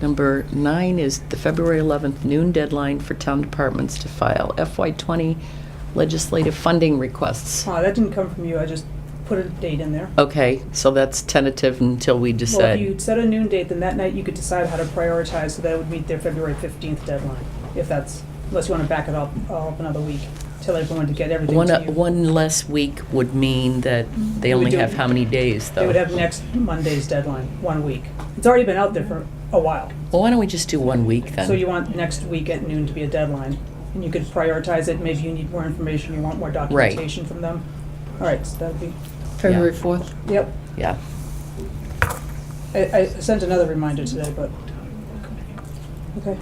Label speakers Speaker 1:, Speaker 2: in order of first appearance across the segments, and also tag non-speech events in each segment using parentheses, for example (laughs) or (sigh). Speaker 1: Number nine is the February 11th noon deadline for town departments to file FY20 legislative funding requests.
Speaker 2: Uh, that didn't come from you, I just put a date in there.
Speaker 1: Okay, so that's tentative until we
Speaker 2: Well, if
Speaker 1: decide.
Speaker 2: you set a noon date, then that night you could decide how to prioritize so that it would meet their February fifteenth deadline, if that's, unless you wanna back it up, all up another week, tell everyone to get everything
Speaker 1: One,
Speaker 2: to you.
Speaker 1: one less week would mean that they
Speaker 2: We
Speaker 1: only
Speaker 2: Mm-hmm. do-
Speaker 1: have how many days, though?
Speaker 2: They would have next Monday's deadline, one week. It's already been out there for a while.
Speaker 1: Well, why don't we just do one week then?
Speaker 2: So you want next week at noon to be a deadline, and you could prioritize it, maybe you need more information, you want more documentation from them. All right, so that'd be,
Speaker 3: February 4th?
Speaker 2: yep,
Speaker 1: Yeah,
Speaker 2: I, I sent another reminder today, but, okay.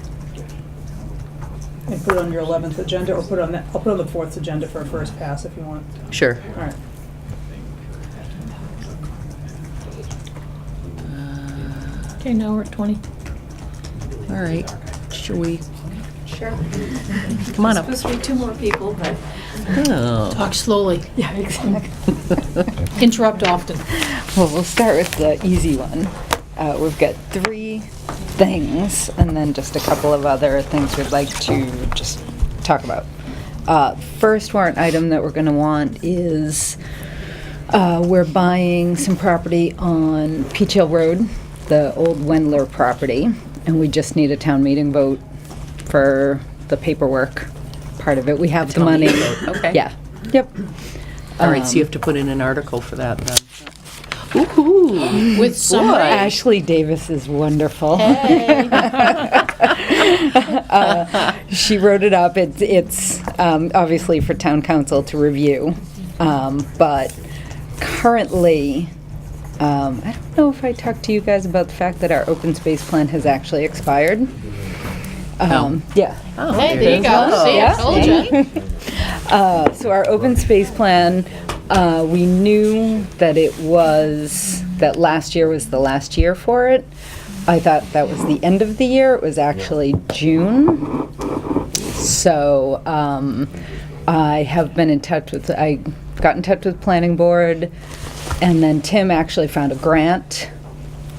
Speaker 2: And put it on your eleventh agenda, or put it on that, I'll put it on the fourth agenda for a first pass if you want,
Speaker 1: sure.
Speaker 2: all right.
Speaker 1: Uh,
Speaker 3: Okay, now we're at 20.
Speaker 1: All right, should we,
Speaker 4: Sure.
Speaker 1: come on up.
Speaker 4: Supposed to be two more people, but.
Speaker 1: Oh.
Speaker 3: Talk slowly.
Speaker 4: (laughs) Yeah, exactly.
Speaker 3: (laughs) Interrupt often.
Speaker 5: Well, we'll start with the easy one. Uh, we've got three things and then just a couple of other things we'd like to just talk about. Uh, first warrant item that we're going to want is uh, we're buying some property on Peach Hill Road, the old Wendler property, and we just need a town meeting vote for the paperwork part of it. We have the
Speaker 1: town
Speaker 5: money.
Speaker 1: meeting vote, okay.
Speaker 5: Yeah. Yep.
Speaker 1: All right, so you have to put in an article for that then. Ooh,
Speaker 3: With summary.
Speaker 5: Ashley Davis is wonderful. (laughs) Uh, she wrote it up. It's, it's um, obviously for town council to review. Um, but currently, um, I don't know if I talked to you guys about the fact that our open space plan has actually expired. Um, Yeah.
Speaker 3: Hey, there you go.
Speaker 5: Oh,
Speaker 3: See, I
Speaker 5: yeah.
Speaker 3: told you.
Speaker 5: Uh, so our open space plan, uh, we knew that it was, that last year was the last year for it. I thought that was the end of the year, it was actually June. So, um, I have been in touch with, I got in touch with planning board, and then Tim actually found a grant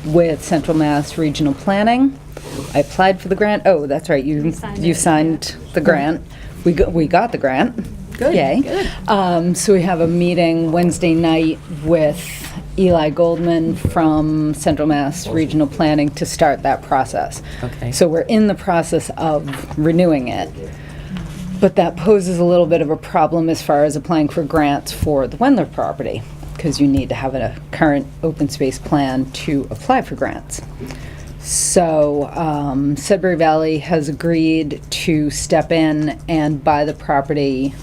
Speaker 5: with Central Mass Regional Planning. I applied for the grant, oh, that's right, you,
Speaker 4: signed
Speaker 5: you
Speaker 4: it.
Speaker 5: signed the grant. We got, we got the grant. Good. Yay. Um, so we have a meeting Wednesday night with Eli Goldman from Central Mass Regional Planning to start that process.
Speaker 1: Okay.
Speaker 5: So we're in the process of renewing it. But that poses a little bit of a problem as far as applying for grants for the Wendler property, because you need to have a current open space plan to apply for grants. So um, Sudbury Valley has agreed to step in and buy the property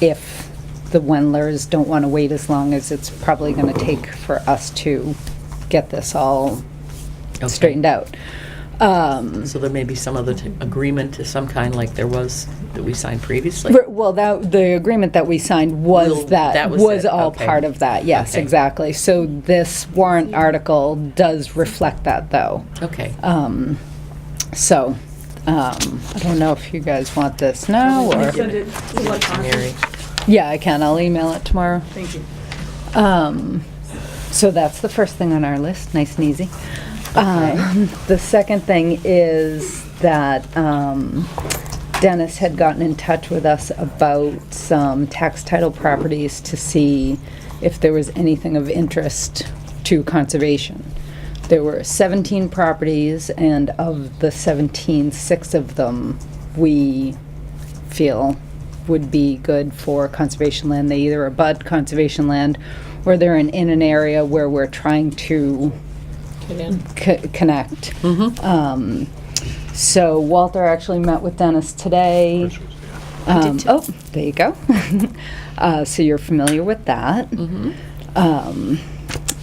Speaker 5: if the Wendlers don't want to wait as long as it's probably going to take for us to get this all straightened out. Um,
Speaker 1: so there may be some other t- agreement to some kind like there was that we signed previously?
Speaker 5: Re- Well, that, the agreement that we signed
Speaker 1: Will-
Speaker 5: was that,
Speaker 1: that was
Speaker 5: was
Speaker 1: it,
Speaker 5: all
Speaker 1: okay.
Speaker 5: part of that, yes,
Speaker 1: Okay.
Speaker 5: exactly. So this warrant article does reflect that, though.
Speaker 1: Okay,
Speaker 5: Um, So, um, I don't know if you guys want this now, or,
Speaker 2: Send it electronically,
Speaker 1: Mary.
Speaker 5: yeah, I can, I'll email it tomorrow.
Speaker 2: thank you.
Speaker 5: Um, so that's the first thing on our list, nice and easy. Um, the second thing is that um, Dennis had gotten in touch with us about some tax title properties to see if there was anything of interest to conservation. There were 17 properties, and of the 17, six of them we feel would be good for conservation land. They either abut conservation land or they're in, in an area where we're trying to
Speaker 3: Get in.
Speaker 5: c- connect. Um, so Walter actually met with Dennis today. Um, oh, there you go. (laughs) uh, so you're familiar with that.
Speaker 1: Mm-hmm.
Speaker 5: Um,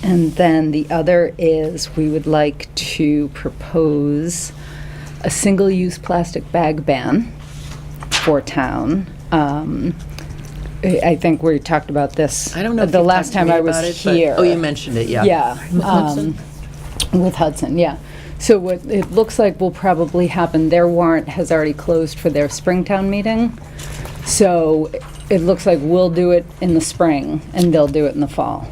Speaker 5: and then the other is we would like to propose a single use plastic bag ban for town. Um, I I think we talked about this
Speaker 1: I don't know if
Speaker 5: Uh, the
Speaker 1: you
Speaker 5: last
Speaker 1: talked to
Speaker 5: time
Speaker 1: me
Speaker 5: I was
Speaker 1: about it, but-
Speaker 5: here.
Speaker 1: Oh, you mentioned it, yeah.
Speaker 5: Yeah. um, With Hudson, yeah. So what it looks like will probably happen, their warrant has already closed for their Springtown meeting. So it looks like we'll do it in the spring and they'll do it in the fall.